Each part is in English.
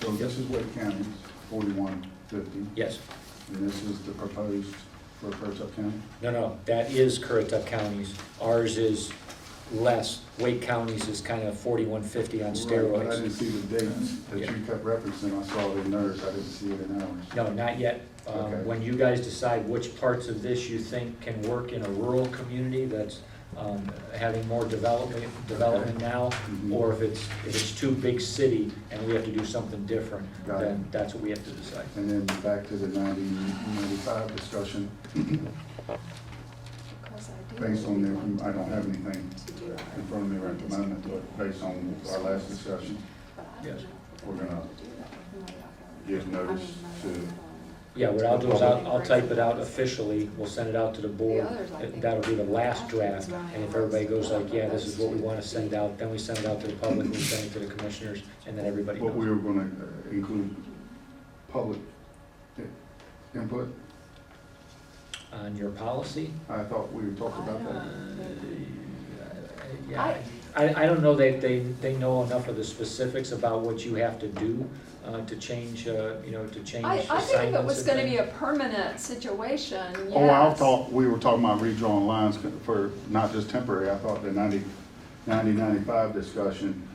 So this is Wake County's forty-one fifty, Yes, and this is the proposed for Currituck County? no, no, that is Currituck County's. Ours is less. Wake County's is kind of forty-one fifty on Right, but I didn't steroids. see the dates that you kept referencing, I saw it in theirs, I didn't see it in ours. No, not yet. Okay. Um, when you guys decide which parts of this you think can work in a rural community that's, um, having more development, development now, Mhm. or if it's, if it's too big city and we have to do something different, Got it. then that's what we have to decide. And then back to the 90 95 discussion, based on the, I don't have anything in front of me right at the moment, but based on our last discussion, Yes. we're gonna give notice to- Yeah, what I'll do is I'll, I'll type it out officially, we'll send it out to the board. others, I think- That'll be the last draft, and if everybody goes like, yeah, this is what we wanna send out, then we send it out to the public, we send it to the commissioners, and then everybody what we knows. were gonna uh, include public i- input, On your policy? I thought we talked about uh, that. Yeah, I, I don't know that they, they know enough of the specifics about what you have to do, uh, to change, uh, you know, to change I, assignments. I think if it was and gonna things. be a permanent situation, yes. Oh, I thought, we were talking about redrawing lines for not just temporary, I thought the 90 90, 95 discussion,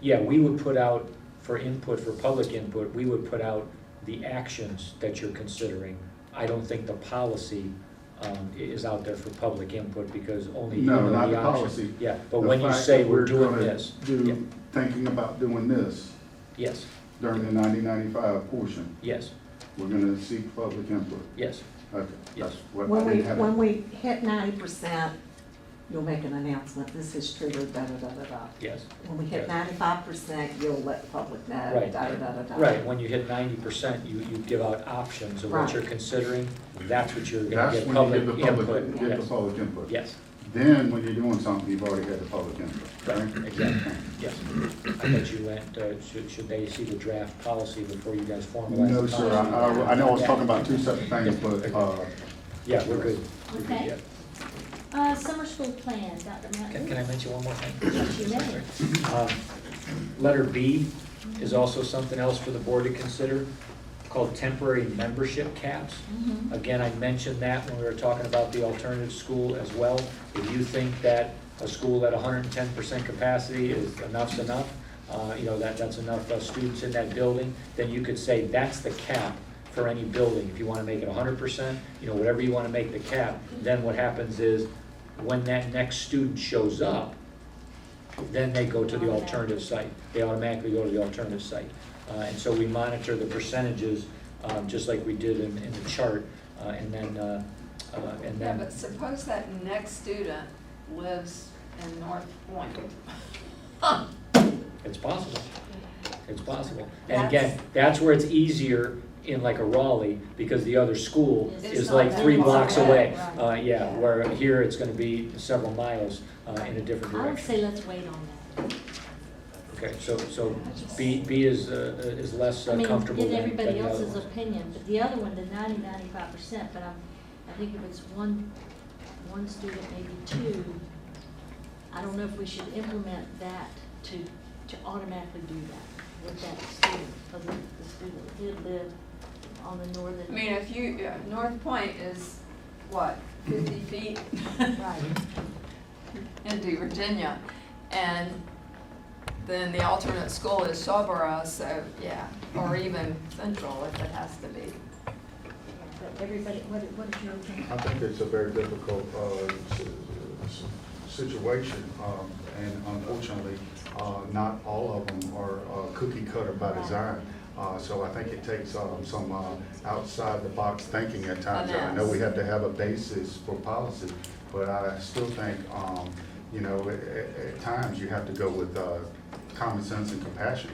Yeah, we would put out, for input, for public input, we would put out the actions that you're considering. I don't think the policy um, i- is out there for public input because only you No, know the not options. the policy. Yeah, but The when you fact say that we're doing gonna this, yeah, Do, thinking about doing this yes, during the 90, 95 portion, yes, we're gonna seek public input. yes, Okay, Yes. that's what I When we, didn't have. when we hit ninety percent, you'll make an announcement, this is triggered, da-da-da-da-da. yes. When we hit Yeah. ninety-five percent, you'll let the public know, Right. da-da-da-da-da. Right, when you hit ninety percent, you, you give out options of what Right. you're considering. That's what you're gonna That's get when you public give the input. public, give the Yes, public input. Yes, Then, when you're doing something, you've already had the public input, right, right? exactly, yes. I bet you went, uh, should, should they see the draft policy before you guys formalize the No, policy? sir, I, I- I know I was talking about two separate things, but, uh, Yeah, we're good. We're good, Okay. yeah. Uh, summer school plan, Dr. Can, Mountain. can I mention one more thing? Yes, you may. Um, Letter B is also something else for the board to consider, called temporary membership caps. Mhm. Again, I mentioned that when we were talking about the alternative school as well. If you think that a school at hundred and ten percent capacity is enough's enough, uh, you know, that, that's enough uh, students in that building, then you could say that's the cap for any building. If you wanna make it hundred percent, you know, whatever you wanna make the cap, then what happens is, when that next student shows up, then they go to the alternative site. They automatically go to the alternative site. Uh, And so we monitor the percentages, um, just like we did in, in the chart, uh, and then, uh, uh, and Yeah, then, but suppose that next student lives in North Point. it's possible. It's possible. And again, that's where it's easier in like a Raleigh, because the other school It's is not like that three far blocks away. away, Uh, right. Yeah, where here it's gonna be several miles uh, in a different I would direction. say let's wait on that. Okay, so, so B, B is, uh, is less I uh, mean, comfortable get than than the other everybody else's ones. opinion, but the other one, the ninety, ninety-five percent, but I'm, I think if it's one, one student, maybe two, I don't know if we should implement that to, to automatically do that with that student, because the the student did live on the northern. I mean, if you, yeah, North Point is, what, fifty feet? Right, into Virginia. And then the alternate school is Shawboro, so yeah, or even Central if it has to be. yeah, but everybody, what, what is your opinion? I think it's a very difficult uh, s- s- situation, um, and unfortunately, uh, not all of them are uh, cookie cutter by Right. design. Uh, So I think it takes um, some outside-the-box thinking at times. I know we have to have a basis for policy, but I still think, um, you know, a- a- at times you have to go with uh, common sense and compassion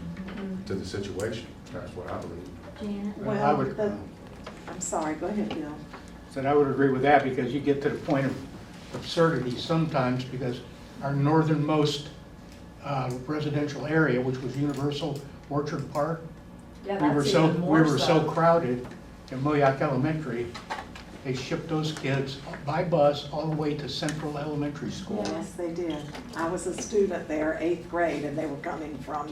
to the situation. That's what I believe. Janet? I Well, would- the- I'm sorry, go ahead, Bill. And I would agree with that because you get to the point of absurdity sometimes because our northernmost uh, residential area, which was Universal Orchard Park, Yeah, we were so, we were so crowded in Moayak Elementary, they shipped those kids by bus all the way to Central Elementary School. Yes, they did. I was a student there, eighth grade, and they were coming from